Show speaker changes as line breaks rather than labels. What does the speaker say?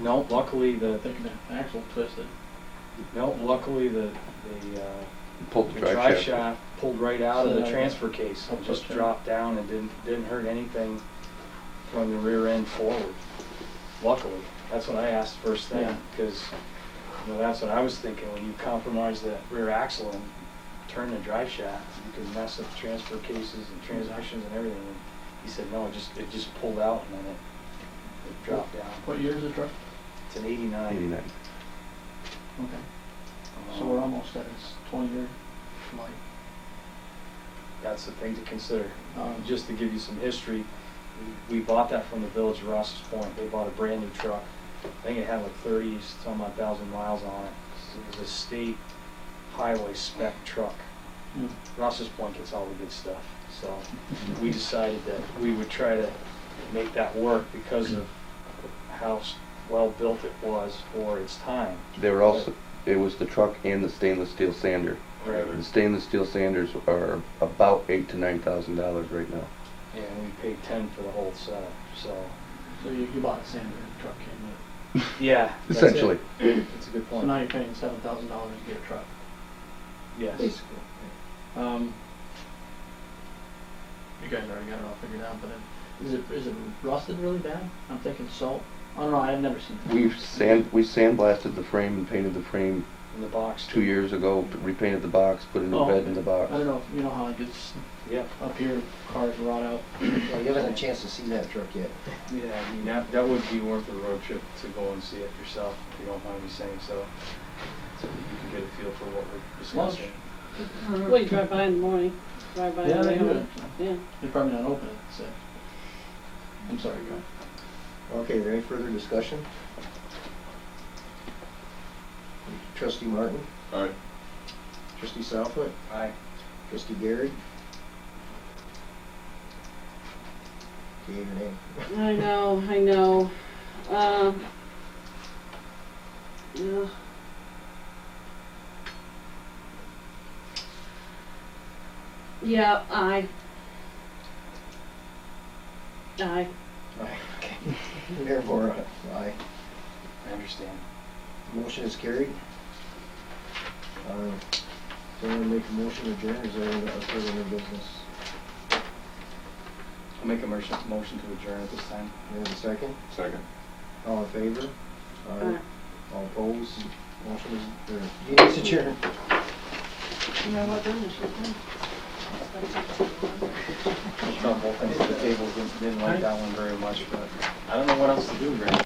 No, luckily the,
I think the axle twisted.
no, luckly the, the, uh,
Pull
the drive shaft pulled right out of the transfer case.
Okay.
Just dropped down and didn't, didn't hurt anything from the rear end forward. Luckily, that's what I asked first thing,
Yeah.
because, you know, that's what I was thinking. When you compromise that rear axle and turn the drive shaft, you can mess up transfer cases and transmissions and everything. And He said, no, it just, it just pulled out and then it, it dropped down.
What year is the truck?
It's an eighty-nine.
Eighty-nine.
Okay,
Um,
so we're almost at its twenty-year life.
That's the thing to consider.
Um,
Just to give you some history, we bought that from the village of Ross's Point. They bought a brand new truck. I think it had like thirty, some odd thousand miles on it. It was a state highway spec truck.
hmm,
Ross's Point gets all the good stuff. So we decided that we would try to make that work because of how s- well-built it was for its time.
They were also, it was the truck and the stainless steel sander.
Right.
The stainless steel sanders are about eight to nine thousand dollars right now.
And we paid ten for the whole setup, so,
so you, you bought a sander, and the truck came with
yeah. that's it.
Essentially.
That's a good
it. So now
point.
you're paying seven thousand dollars to get a truck.
Yes.
Basically.
Um, you guys already got it all figured out, but it, is it, is it rusted really bad? I'm thinking salt. I don't know, I've never seen that.
We've sand, we sandblasted the frame and painted the frame
In the box.
two years ago, repainted the box, put a new
Oh,
bed in the box.
I don't know, if you know how it gets
Yep.
up here, cars rot out.
Well, you haven't had a chance to see that truck yet.
Yeah, I mean, that, that would be worth a road trip to go and see it yourself, if you don't mind me saying so. So that you can get a feel for what we're
Lunch.
discussing.
Well, you drive by in the morning, drive by. in
Yeah,
the
they do it.
morning. Yeah.
They're uh, probably not open at six. I'm sorry, Carl.
Okay, there any further discussion? Trustee Martin?
Aye.
Trustee Southwood?
Aye.
Trustee Garrett? Okay, your name.
I know, I know. Um, yeah. Yeah, I. I.
Aye. Therefore, aye.
I understand.
Motion is carried. Uh, Someone make a motion to adjourn, is there any further new business?
I'll make a motion, motion to adjourn at this time.
We have a second?
Second.
All in favor?
Uh,
All opposed? Motion is, or, meeting is adjourned.
you know what, then, I should go.
It's not both ends of the table didn't, didn't like that one very much, but I don't know what else to do, Greg.